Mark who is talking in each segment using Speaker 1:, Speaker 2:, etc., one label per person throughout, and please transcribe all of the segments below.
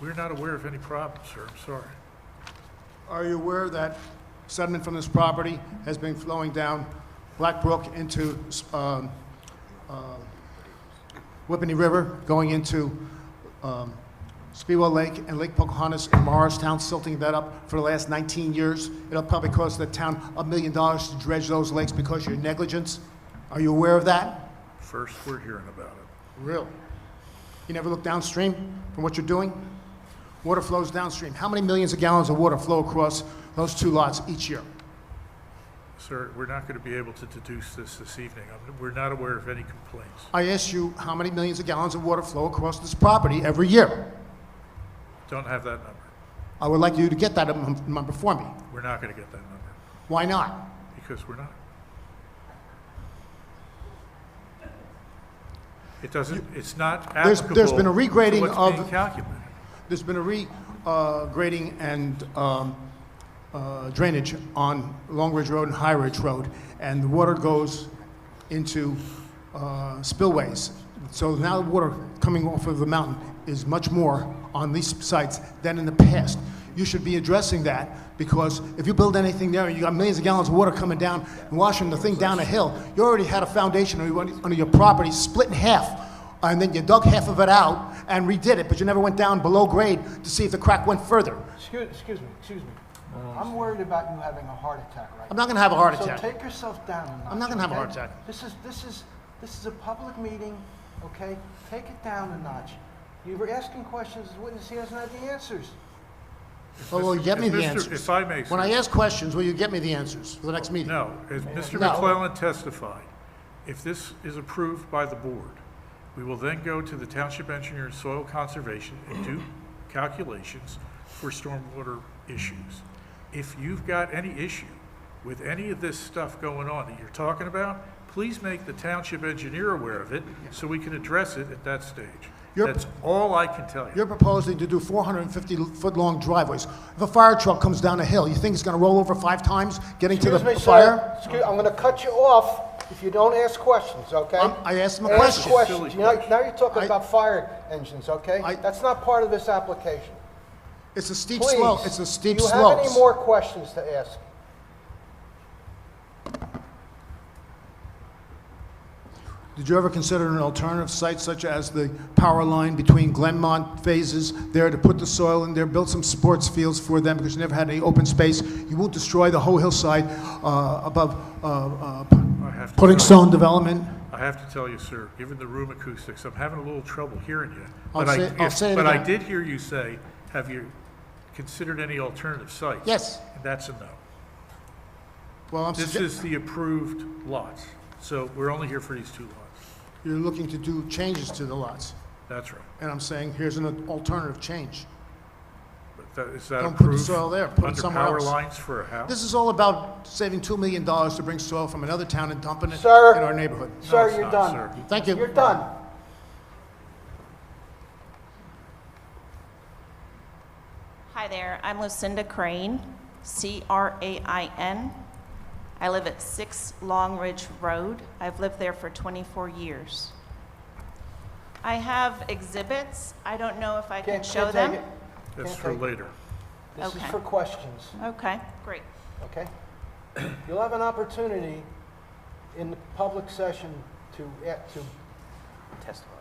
Speaker 1: We're not aware of any problems, sir, I'm sorry.
Speaker 2: Are you aware that sediment from this property has been flowing down Black Brook into um, uh, Whippany River, going into um, Speedwell Lake and Lake Pocahontas and Morristown, silting that up for the last 19 years? It'll probably cost the town a million dollars to dredge those lakes because of your negligence. Are you aware of that?
Speaker 1: First, we're hearing about it.
Speaker 2: Really? You never look downstream from what you're doing? Water flows downstream. How many millions of gallons of water flow across those two lots each year?
Speaker 1: Sir, we're not going to be able to deduce this this evening. I'm- We're not aware of any complaints.
Speaker 2: I ask you how many millions of gallons of water flow across this property every year.
Speaker 1: Don't have that number.
Speaker 2: I would like you to get that num- number for me.
Speaker 1: We're not going to get that number,
Speaker 2: Why not?
Speaker 1: because we're not. It doesn't, it's not
Speaker 2: There's-
Speaker 1: applicable
Speaker 2: there's been a regrading
Speaker 1: to what's
Speaker 2: of-
Speaker 1: being calculated.
Speaker 2: There's been a regrading and um, uh, drainage on Long Ridge Road and High Ridge Road, and the water goes into uh, spillways. So now the water coming off of the mountain is much more on these sites than in the past. You should be addressing that, because if you build anything there, you got millions of gallons of water coming down and washing the thing down a hill, you already had a foundation under your- under your property split in half and then you dug half of it out and redid it, but you never went down below grade to see if the crack went further.
Speaker 3: Excuse, excuse me, excuse me. I'm worried about you having a heart attack right
Speaker 2: I'm
Speaker 3: now.
Speaker 2: not going to have a Uh, heart
Speaker 3: So
Speaker 2: attack.
Speaker 3: take yourself down a notch.
Speaker 2: I'm not gonna have a
Speaker 3: okay?
Speaker 2: heart attack.
Speaker 3: This is, this is, this is a public meeting, okay? Take it down a notch. You were asking questions, the witness, he doesn't have the answers.
Speaker 2: Oh, Well, will you get me
Speaker 1: If
Speaker 2: the
Speaker 1: Mr.
Speaker 2: answers?
Speaker 1: If I may,
Speaker 2: When I
Speaker 1: sir,
Speaker 2: ask questions, will you get me the answers for the next meeting?
Speaker 1: no, as Mr.
Speaker 2: No.
Speaker 1: McClellan testified, if this is approved by the board, we will then go to the township engineer and soil conservation and do calculations for stormwater issues. If you've got any issue with any of this stuff going on that you're talking about, please make the township engineer aware of it so we can address it at that stage.
Speaker 2: You're-
Speaker 1: That's all I can tell you.
Speaker 2: You're proposing to do 450-foot-long driveways. If a fire truck comes down a hill, you think it's going to roll over five times getting to the
Speaker 3: Excuse me,
Speaker 2: fire?
Speaker 3: sir. Excuse, I'm gonna cut you off if you don't ask questions, okay?
Speaker 2: Um, I asked him a
Speaker 3: Ask
Speaker 2: question.
Speaker 3: questions.
Speaker 1: Silly
Speaker 3: You know, Now you're talking
Speaker 2: I-
Speaker 3: about fire engines, okay?
Speaker 2: I-
Speaker 3: That's not part of this application.
Speaker 2: It's a steep
Speaker 3: Please.
Speaker 2: slope, it's a steep
Speaker 3: Do you have
Speaker 2: slope.
Speaker 3: any more questions to ask?
Speaker 2: Did you ever consider an alternative site such as the power line between Glenmont phases there to put the soil in there, build some sports fields for them because you never had any open space? You won't destroy the whole hillside uh, above uh, uh, p-
Speaker 1: I have to tell
Speaker 2: putting
Speaker 1: you.
Speaker 2: stone development?
Speaker 1: I have to tell you, sir, given the room acoustics, I'm having a little trouble hearing you.
Speaker 2: I'll
Speaker 1: But I-
Speaker 2: say- I'll
Speaker 1: if-
Speaker 2: say it
Speaker 1: But I
Speaker 2: again.
Speaker 1: did hear you say, have you considered any alternative sites?
Speaker 2: Yes.
Speaker 1: And that's a no.
Speaker 2: Well, I'm
Speaker 1: This
Speaker 2: sugge-
Speaker 1: is the approved lots, so we're only here for these two lots.
Speaker 2: you're looking to do changes to the lots,
Speaker 1: That's right.
Speaker 2: and I'm saying here's an alternative change.
Speaker 1: But that- is that
Speaker 2: Don't put the
Speaker 1: approved?
Speaker 2: soil there, put it somewhere
Speaker 1: Under
Speaker 2: else.
Speaker 1: power lines for a house?
Speaker 2: This is all about saving $2 million to bring soil from another town and dumping it in
Speaker 3: Sir.
Speaker 2: our neighborhood.
Speaker 3: Sir,
Speaker 1: it's
Speaker 3: you're
Speaker 1: not,
Speaker 3: done.
Speaker 1: sir.
Speaker 2: Thank you.
Speaker 3: You're done.
Speaker 4: Hi there, I'm Lucinda Crane, C-R-A-I-N. I live at 6 Long Ridge Road. I've lived there for 24 years. I have exhibits. I don't know if I can
Speaker 3: Can't-
Speaker 4: show
Speaker 3: can't take
Speaker 4: them.
Speaker 3: it.
Speaker 1: That's
Speaker 3: Can't
Speaker 1: for
Speaker 3: take it.
Speaker 1: later.
Speaker 3: This is
Speaker 4: Okay.
Speaker 3: for questions,
Speaker 4: Okay, great.
Speaker 3: okay? You'll have an opportunity in the public session to, eh, to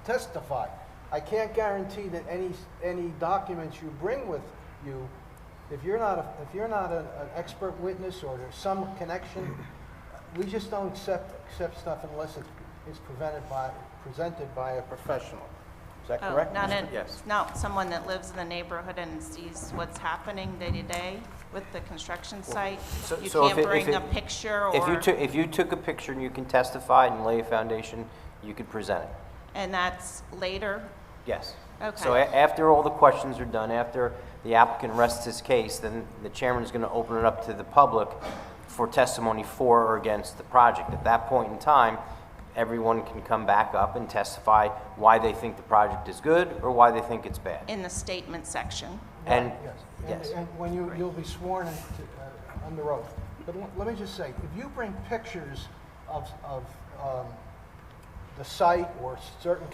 Speaker 3: testify. I can't guarantee that any, any documents you bring with you, if you're not, a- if you're not an an expert witness or there's some connection, we just don't accept, accept stuff unless it's, it's prevented by, presented by a professional. Is that
Speaker 4: Oh,
Speaker 3: correct?
Speaker 4: Not
Speaker 3: Mr.
Speaker 4: an- Not someone that lives in the neighborhood and sees what's happening day to day with the construction site.
Speaker 5: so-
Speaker 4: You
Speaker 5: so if
Speaker 4: can't
Speaker 5: it- if
Speaker 4: bring a
Speaker 5: it-
Speaker 4: picture
Speaker 5: If you
Speaker 4: or,
Speaker 5: took, if you took a picture and you can testify and lay a foundation, you could present it.
Speaker 4: and that's later.
Speaker 5: Yes. So
Speaker 4: Okay.
Speaker 5: a- after all the questions are done, after the applicant rests his case, then the chairman is going to open it up to the public for testimony for or against the project. At that point in time, everyone can come back up and testify why they think the project is good or why they think it's bad.
Speaker 4: In the statement section.
Speaker 5: And,
Speaker 3: Yes. And-
Speaker 5: yes.
Speaker 3: And when you, you'll be sworn in to- uh, under oath. But l- let me just say, if you bring pictures of, of um, the site or certain